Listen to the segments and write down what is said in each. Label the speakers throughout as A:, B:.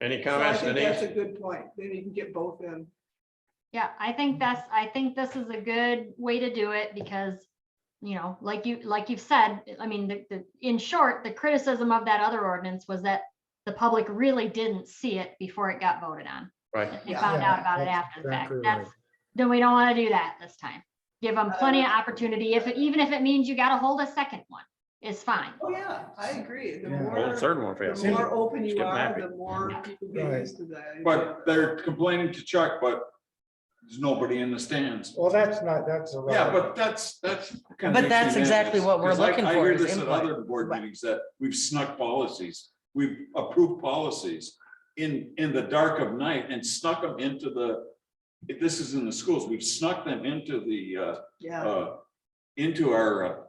A: Any
B: So I
A: comments,
B: think That's a
A: Denise?
B: good point. Then you can get both in.
C: Yeah, I think that's, I think this is a good way to do it because, you know, like you, like you've said, I mean, the, the, in short, the criticism of that other ordinance was that the public really didn't see it before it got voted on.
A: Right,
C: They
B: Yeah.
C: found
D: Yeah,
C: out about it
D: that's
C: after the fact.
D: exactly
C: That's,
D: right. Uh,
C: then we don't want to do that this time. Give them plenty of opportunity. If, it- even if it means you got to hold a second one, it's fine.
B: Oh, yeah, I agree. The
D: Yeah.
A: well, the
B: more,
A: third one fails.
B: the more open
A: Just
B: you
A: get
B: are,
A: happy.
B: the more people get
D: Right.
B: used to that.
E: But they're complaining to Chuck, but there's nobody in the stands.
D: Well, that's not, that's a.
E: Yeah, but that's, that's. kind of
F: But that's
E: mixing
F: exactly what we're
E: messages. 'Cause I-
F: looking
E: I
F: for
E: hear
F: is
E: this at
F: input.
E: Other board meetings that we've snuck policies, we've approved policies in, in the dark of night and snuck them into the, if this is in the schools, we've snuck them into the, uh,
B: Yeah,
E: uh, into our uh,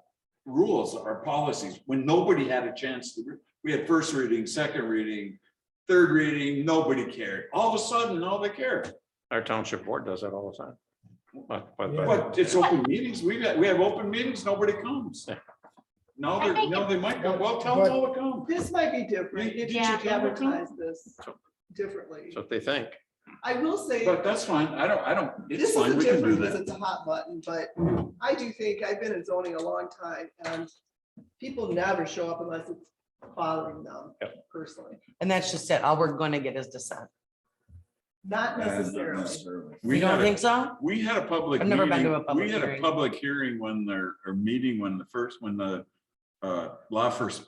E: rules, our policies, when nobody had a chance to, re- we had first reading, second reading, third reading, nobody cared. All of a sudden, now they care.
A: Our township board does that all the time. But- but- but-
E: But it's open meetings. We got, we have open meetings, nobody comes. Now
C: I
E: they're,
C: think
E: now they might go, well, tell them all to come.
B: this might be different
E: Did
B: if
E: you
B: you
C: check
E: out the code?
B: advertise this
A: So-
B: differently.
A: That's what they think.
B: I will say.
E: But that's fine. I don't, I don't, it's
B: This is
E: fine.
B: a
E: We can do
B: different, because
E: that.
B: it's a hot button, but I do think, I've been in zoning a long time, and people never show up unless it's bothering them personally,
F: And that's just it. All we're gonna get is dissent.
B: not
D: uh,
B: necessarily.
F: You
E: We
F: don't
E: had a,
F: think so?
E: we had a public
F: I've never been to a
E: meeting, we
F: public
E: had a
F: hearing.
E: public hearing when their, or meeting when the first, when the uh, law first,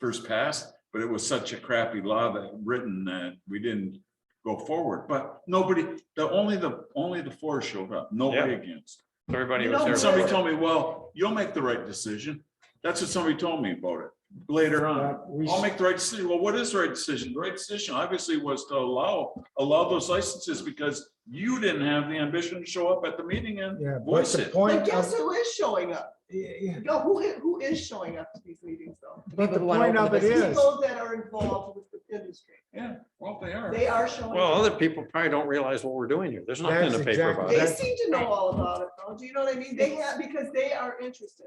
E: first passed, but it was such a crappy law that written that we didn't go forward, but nobody, the, only the, only the four showed up, nobody against.
A: Everybody
B: You
A: was
B: know,
A: there.
E: And somebody
A: before.
E: told me, well, you'll make the right decision. That's what somebody told me about it later
D: Uh,
E: on. um, I'll make the right decision. Well, what is the right decision? The right decision obviously was to allow, allow those licenses because you didn't have the ambition to show up at the meeting and
D: Yeah, but
E: voice
D: the
E: it.
B: But
D: point
B: guess
D: of,
B: who is showing up?
D: yeah, yeah,
B: No, who, i- who is showing up to these meetings though?
D: but the
F: People who wanna
D: point
F: open
D: of
F: the
D: it
F: business.
D: is,
B: People that are involved with the industry,
E: yeah, well, they are.
B: they are showing.
A: Well,
B: up.
A: other people probably don't realize what we're doing here. There's nothing in the
D: That's
A: paper
D: exactly-
A: about
B: They
A: it.
B: seem to know all about it, though, do you know what I mean? They have, because they are interested.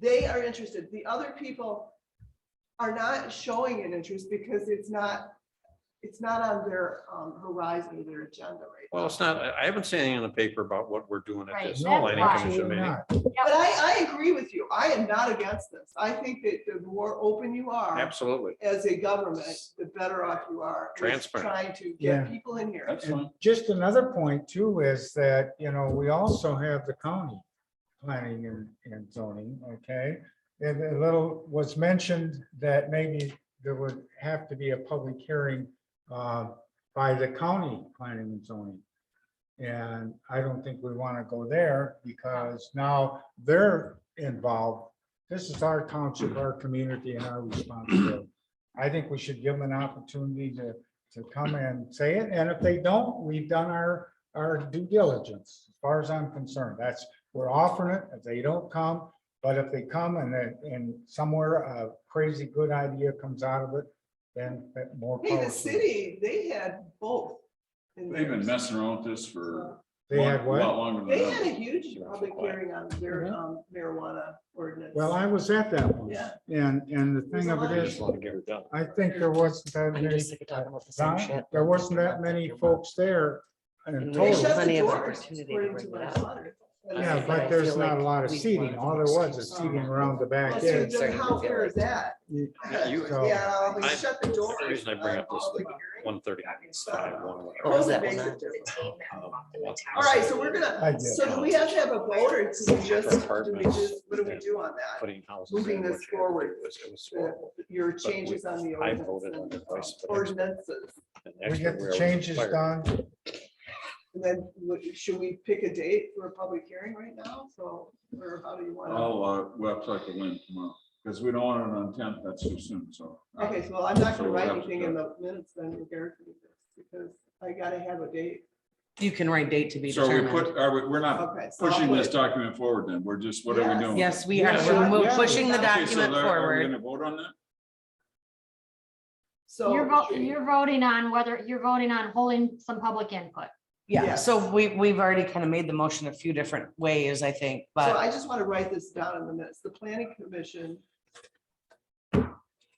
B: They are interested, the other people are not showing an interest because it's not, it's not on their um, horizon, or their agenda right
A: Well, it's not, I I haven't seen anything in the paper about what we're doing at
C: Right,
A: this
C: that's
A: planning
C: why.
A: commission
D: Absolutely
A: meeting.
D: not.
B: But I, I agree with you, I am not against this, I think that the more open you are
A: Absolutely.
B: as a government, the better off you are. with
A: Transparent.
B: Trying to
D: Yeah.
B: get people in here.
E: That's fine.
D: Just another point too is that, you know, we also have the county planning and, and zoning, okay? And a little was mentioned that maybe there would have to be a public hearing uh, by the county planning and zoning. And I don't think we want to go there because now they're involved. This is our township, our community and our responsibility. I think we should give them an opportunity to to come and say it, and if they don't, we've done our, our due diligence, as far as I'm concerned, that's, we're offering it, if they don't come, but if they come and then, and somewhere a crazy good idea comes out of it, then that more.
B: Hey,
D: power
B: the
D: to
B: city, they had both. in
E: They've been
B: theirs.
E: messing around with this for
D: them.
E: a
D: They had
E: lot
D: what?
E: longer
B: They
E: than
B: had a
E: that.
B: huge public hearing on their
D: Mhm.
B: um, marijuana ordinance.
D: Well, I was at that one,
B: Yeah.
D: and, and the thing of
A: I
D: it
A: just
D: is,
A: want to get it done.
D: I think there wasn't that
F: I'm
D: many,
F: just sick of talking about the same
D: Don,
F: shit.
D: there wasn't that many folks there in
F: And
B: They
F: Totally.
B: shut
D: total.
B: the
F: Plenty of
B: doors,
F: opportunity to
B: according to
F: bring
B: my
F: it up.
B: daughter. And
F: Yeah,
B: I
D: Yeah,
B: was
D: but
B: like,
F: I
D: there's
F: feel
D: not a
F: like
D: lot of
F: we
D: seating,
F: wanted
D: all there
F: an
D: was is
F: excuse.
D: seating around the
B: "Well,
D: back
F: Yeah,
B: so
D: end.
B: then
F: exactly.
B: How fair is that?
D: You-
A: Yeah, you-
D: so-
B: Yeah, we
A: I-
B: shut the doors. uh,
A: the reason I bring up this-
B: on all the hearings.
A: One thirty, five, one, whatever. Um,
F: What was
B: COVID
F: that
B: makes
F: one
B: it
F: on?
B: different.
A: All
B: All right, so we're
D: I
B: gonna,
D: did.
B: so do we have to have a vote or do we just, do we just, what do we do on that?
A: Putting houses.
B: Moving
A: in, what
B: this
A: you had to
B: forward,
A: do was- It was horrible.
B: Your changes on the
A: I voted
B: ordinance and,
A: on it.
B: um, ordinances.
A: And
D: We
A: actually,
D: get
A: where I
D: the
A: was
D: changes
A: fired-
D: done.
B: And then what- should we pick a date for a public hearing right now? So, or how do you want to?
E: I'll, uh, we'll have to talk to Lynn tomorrow, because we don't want it on tenth, that's too soon, so.
B: Okay, so I'm not
E: So
B: gonna
E: we'll
B: write
E: have to
B: anything in the minutes then regarding this because I gotta have a date.
F: You can write date to be
E: So we
F: determined.
E: put, are we, we're not
B: Okay. so I'll
E: pushing
B: put
E: this
B: it-
E: document forward then. We're just, what are we
B: Yes.
E: doing?
F: Yes, we are.
E: Yeah.
F: We're mo-
D: Yeah.
F: pushing the
E: Okay, so
F: document
E: there- are we
F: forward.
E: Gonna vote on that?
B: So.
C: You're voting, you're voting on whether, you're voting on holding some public input.
F: Yeah,
B: Yes.
F: so we, we've already kind of made the motion a few different ways, I think,
B: So
F: but
B: I just want to write this down in the minutes. The planning commission